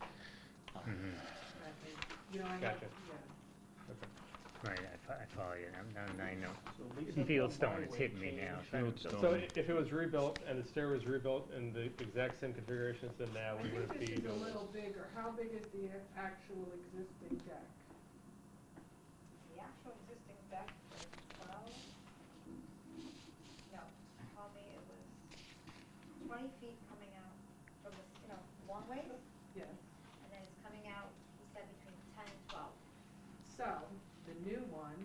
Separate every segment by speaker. Speaker 1: Mm-hmm.
Speaker 2: you know, I have,
Speaker 3: Gotcha.
Speaker 2: yeah.
Speaker 1: Right, I, fo- I follow you, now, now I know.
Speaker 4: So Lisa from my
Speaker 1: Fieldstone is
Speaker 4: way
Speaker 1: hitting me now.
Speaker 4: changed-
Speaker 1: so I don't-
Speaker 5: Fieldstone.
Speaker 3: So i- if it was rebuilt and the stair was rebuilt in the exact same configuration as it now,
Speaker 2: I
Speaker 3: we
Speaker 2: think
Speaker 3: wouldn't
Speaker 2: this
Speaker 3: be
Speaker 2: is a
Speaker 3: doing this.
Speaker 2: little bigger, how big is the a- actual existing deck?
Speaker 6: The actual existing deck was twelve, no, she told me it was twenty feet coming out from the, you know, one way, and
Speaker 2: Yes,
Speaker 6: then it's coming out, he said between ten and twelve.
Speaker 2: so, the new one,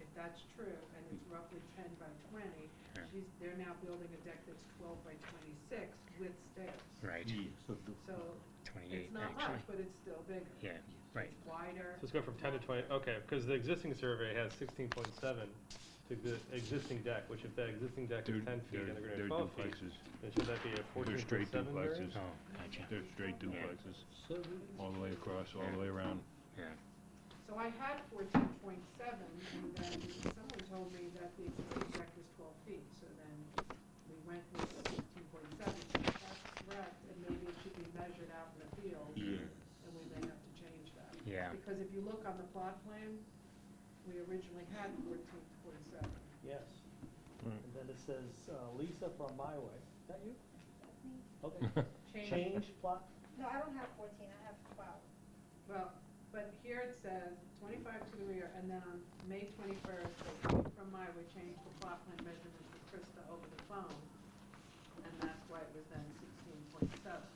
Speaker 2: if that's true, and it's roughly ten by twenty,
Speaker 1: Yeah.
Speaker 2: she's, they're now building a deck that's twelve by twenty-six with stairs.
Speaker 1: Right,
Speaker 5: Yeah, so the-
Speaker 2: So,
Speaker 1: twenty-eight,
Speaker 2: it's not much,
Speaker 1: actually.
Speaker 2: but it's still bigger.
Speaker 1: Yeah, right,
Speaker 2: It's wider.
Speaker 3: So let's go from ten to twenty, okay, because the existing survey has sixteen point seven to the existing deck, which if that existing deck is
Speaker 5: They're-
Speaker 3: ten feet and they're
Speaker 5: they're-
Speaker 3: gonna be
Speaker 5: they're
Speaker 3: twelve feet,
Speaker 5: duplexes.
Speaker 3: then should that be a
Speaker 5: They're
Speaker 3: fourteen
Speaker 5: straight
Speaker 3: point seven area?
Speaker 5: duplexes.
Speaker 1: oh, gotcha,
Speaker 5: They're straight duplexes, all the way across, all the way around.
Speaker 1: yeah.
Speaker 2: So I had fourteen point seven, and then someone told me that the existing deck was twelve feet, so then we went with fourteen point seven. If that's correct, and maybe it should be measured out in the field, and we may have to change that.
Speaker 1: Yeah.
Speaker 2: Because if you look on the plot plan, we originally had fourteen point seven.
Speaker 4: Yes.
Speaker 5: Right.
Speaker 4: And then it says, uh, Lisa from my way. Is that you?
Speaker 6: That's me.
Speaker 4: Okay. Change plot.
Speaker 6: No, I don't have fourteen, I have twelve.
Speaker 2: Well, but here it says twenty-five to the rear, and then on May twenty-first, from my, we changed the plot plan measurement for Krista over the phone, and that's why it was then sixteen point seven.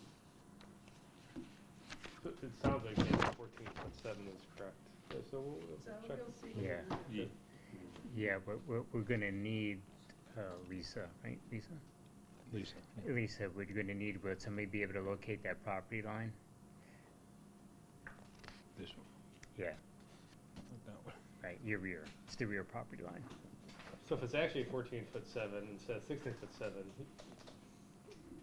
Speaker 3: So It sounds like maybe fourteen point seven is correct. So- So we'll we'll
Speaker 2: So
Speaker 3: check.
Speaker 2: you'll see.
Speaker 1: Yeah.
Speaker 5: Yeah.
Speaker 1: Yeah, but we're, we're gonna need, uh, Lisa, right, Lisa?
Speaker 5: Lisa.
Speaker 1: Lisa, we're gonna need, will somebody be able to locate that property line?
Speaker 5: This one,
Speaker 1: Yeah,
Speaker 5: not that one.
Speaker 1: right, your rear, it's the rear property line.
Speaker 3: So if it's actually fourteen foot seven instead of sixteen foot seven,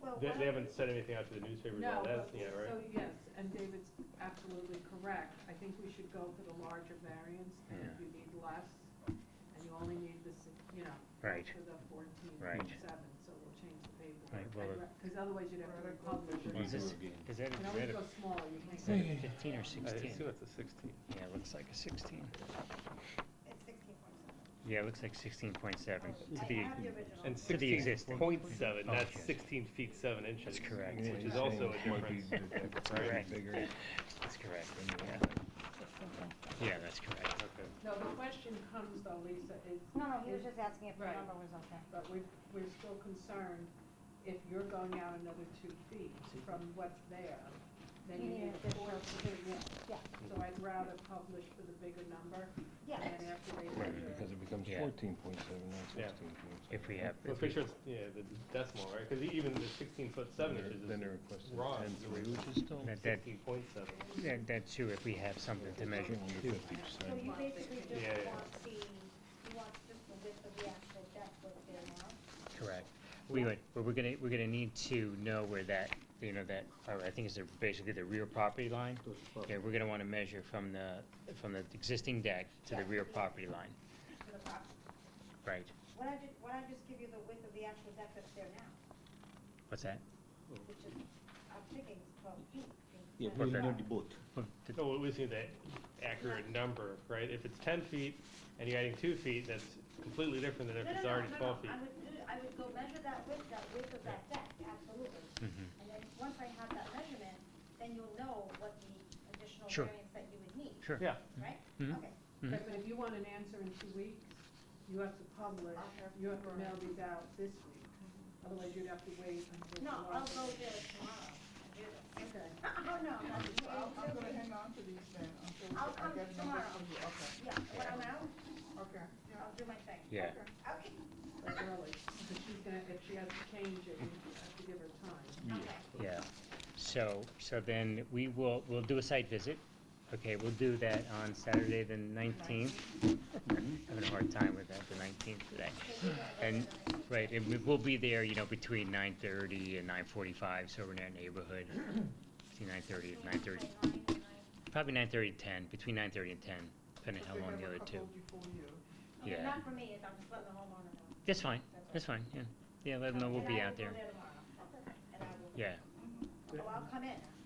Speaker 6: Well,
Speaker 3: they,
Speaker 6: one
Speaker 3: they
Speaker 6: of-
Speaker 3: haven't said anything out to the newspapers
Speaker 2: Oh, No,
Speaker 3: on that
Speaker 2: but-
Speaker 3: yet,
Speaker 2: so
Speaker 3: right?
Speaker 2: yes, and David's absolutely correct. I think we should go for the larger variance, and if
Speaker 1: Yeah.
Speaker 2: you need less, and you only need the, si- you know,
Speaker 1: Right.
Speaker 2: for the fourteen
Speaker 1: Right.
Speaker 2: point seven, so we'll change the paper.
Speaker 1: Right, well, it-
Speaker 2: Because otherwise you'd have to republish it.
Speaker 1: Is this, is that,
Speaker 2: You can
Speaker 1: a-
Speaker 2: always
Speaker 1: is that
Speaker 2: go
Speaker 1: a-
Speaker 2: smaller, you
Speaker 1: is
Speaker 2: can't.
Speaker 1: that a fifteen or
Speaker 3: I
Speaker 1: sixteen?
Speaker 3: assume it's a sixteen.
Speaker 1: Yeah, it looks like a sixteen.
Speaker 6: It's sixteen point seven.
Speaker 1: Yeah, it looks like sixteen point seven
Speaker 6: Oh,
Speaker 1: to
Speaker 6: I- I
Speaker 1: the,
Speaker 6: have the original.
Speaker 3: And
Speaker 1: To the
Speaker 3: sixteen
Speaker 1: existing.
Speaker 3: point seven,
Speaker 1: Oh,
Speaker 3: that's
Speaker 1: okay.
Speaker 3: sixteen feet seven inches.
Speaker 1: correct.
Speaker 3: Which is also a
Speaker 5: Might be
Speaker 3: difference.
Speaker 5: different,
Speaker 1: Correct.
Speaker 5: bigger.
Speaker 1: that's correct, yeah. Yeah, that's correct.
Speaker 3: Okay.
Speaker 2: No, the question comes though, Lisa, is.
Speaker 7: No, no, he was
Speaker 2: is-
Speaker 7: just asking if the
Speaker 2: Right.
Speaker 7: number was okay.
Speaker 2: But we're, we're still concerned, if you're going out another two feet from what's there, then
Speaker 7: You
Speaker 2: you
Speaker 7: need
Speaker 2: need
Speaker 7: an
Speaker 2: a four feet,
Speaker 7: Yeah.
Speaker 2: yeah. So I'd rather publish for the bigger number,
Speaker 6: Yeah.
Speaker 2: and then after they
Speaker 1: Right,
Speaker 2: measure
Speaker 5: Because
Speaker 2: it.
Speaker 5: it becomes
Speaker 1: Yeah.
Speaker 5: fourteen point seven, not
Speaker 3: Yeah.
Speaker 5: sixteen point seven.
Speaker 1: If we have,
Speaker 3: Let's make sure it's, yeah, the decimal, right? Because even the sixteen foot seven inches
Speaker 5: Then they're
Speaker 3: is
Speaker 5: requesting
Speaker 3: wrong.
Speaker 5: ten three, which is still.
Speaker 1: that, that,
Speaker 3: sixteen point seven.
Speaker 1: that- that's true, if we have something to measure.
Speaker 5: Fifty
Speaker 6: So
Speaker 5: percent.
Speaker 6: you basically
Speaker 3: Yeah,
Speaker 6: just
Speaker 3: yeah.
Speaker 6: want the, you want just the width of the actual deck what's there now?
Speaker 1: Correct. We would, but we're gonna, we're gonna need to know where that, you know, that, uh, I think it's the- basically the rear property line. Yeah, we're gonna wanna measure from the, from the existing deck to the rear property line,
Speaker 6: To the property.
Speaker 1: right?
Speaker 6: Why don't I ju- why don't I just give you the width of the actual deck that's there now,
Speaker 1: What's that?
Speaker 6: which is, I'm thinking it's twelve feet.
Speaker 8: Yeah,
Speaker 6: instead
Speaker 8: we
Speaker 6: of
Speaker 1: Okay.
Speaker 8: know
Speaker 6: 12.
Speaker 8: the both.
Speaker 1: Well, the-
Speaker 3: No, we just need that accurate number, right? If it's ten feet and you're adding two feet, that's completely different than if
Speaker 6: No,
Speaker 3: it's
Speaker 6: no, no,
Speaker 3: already
Speaker 6: no, no,
Speaker 3: twelve feet.
Speaker 6: I would do, I would go measure that width, that width of that deck, absolutely. And then, once I have that measurement, then you'll know what the additional
Speaker 1: Sure.
Speaker 6: variance that you would need,
Speaker 1: Sure.
Speaker 3: Yeah,
Speaker 6: right?
Speaker 1: Mhm.
Speaker 6: Okay,
Speaker 1: Mhm.
Speaker 2: But but if you want an answer in two weeks, you have to publish,
Speaker 6: I'll have
Speaker 2: you have to
Speaker 6: to-
Speaker 2: mail these out this week, otherwise you'd have to wait until.
Speaker 6: Mm-hmm. no,
Speaker 2: July.
Speaker 6: I'll go there tomorrow and do this.
Speaker 2: Okay,
Speaker 6: Oh, no, I'm not doing
Speaker 9: I'll, I'm gonna
Speaker 6: it.
Speaker 9: hang on to these then until
Speaker 6: I'll
Speaker 9: I get
Speaker 6: come
Speaker 9: numbers
Speaker 6: tomorrow.
Speaker 9: from you, okay,
Speaker 6: Yeah, when I'm out,
Speaker 9: okay, yeah.
Speaker 6: I'll do my thing.
Speaker 1: Yeah,
Speaker 6: Okay,
Speaker 2: that's early, because she's gonna, if she has to change it, we have to give her time.
Speaker 6: okay.
Speaker 1: yeah. So, so then we will, we'll do a site visit. Okay, we'll do that on Saturday, the nineteenth. Having a hard time with that, the nineteenth today. And, right, and we- we'll be there, you know, between nine thirty and nine forty-five, so we're in that neighborhood. Between nine thirty and nine thirty,
Speaker 6: Nine, nine.
Speaker 1: probably nine thirty to ten, between nine thirty and ten, depending
Speaker 9: But
Speaker 1: how
Speaker 9: they
Speaker 1: long
Speaker 9: have
Speaker 1: the
Speaker 9: a
Speaker 1: other two.
Speaker 9: couple Before you.
Speaker 6: Okay,
Speaker 1: Yeah.
Speaker 6: Not for me, it's- I'm just letting the homeowner know.
Speaker 1: That's fine, that's fine, yeah. Yeah, let them know we'll
Speaker 6: And
Speaker 1: be
Speaker 6: I will
Speaker 1: out
Speaker 6: go
Speaker 1: there.
Speaker 6: tomorrow. And I will.
Speaker 1: Yeah,
Speaker 6: Oh, I'll come in.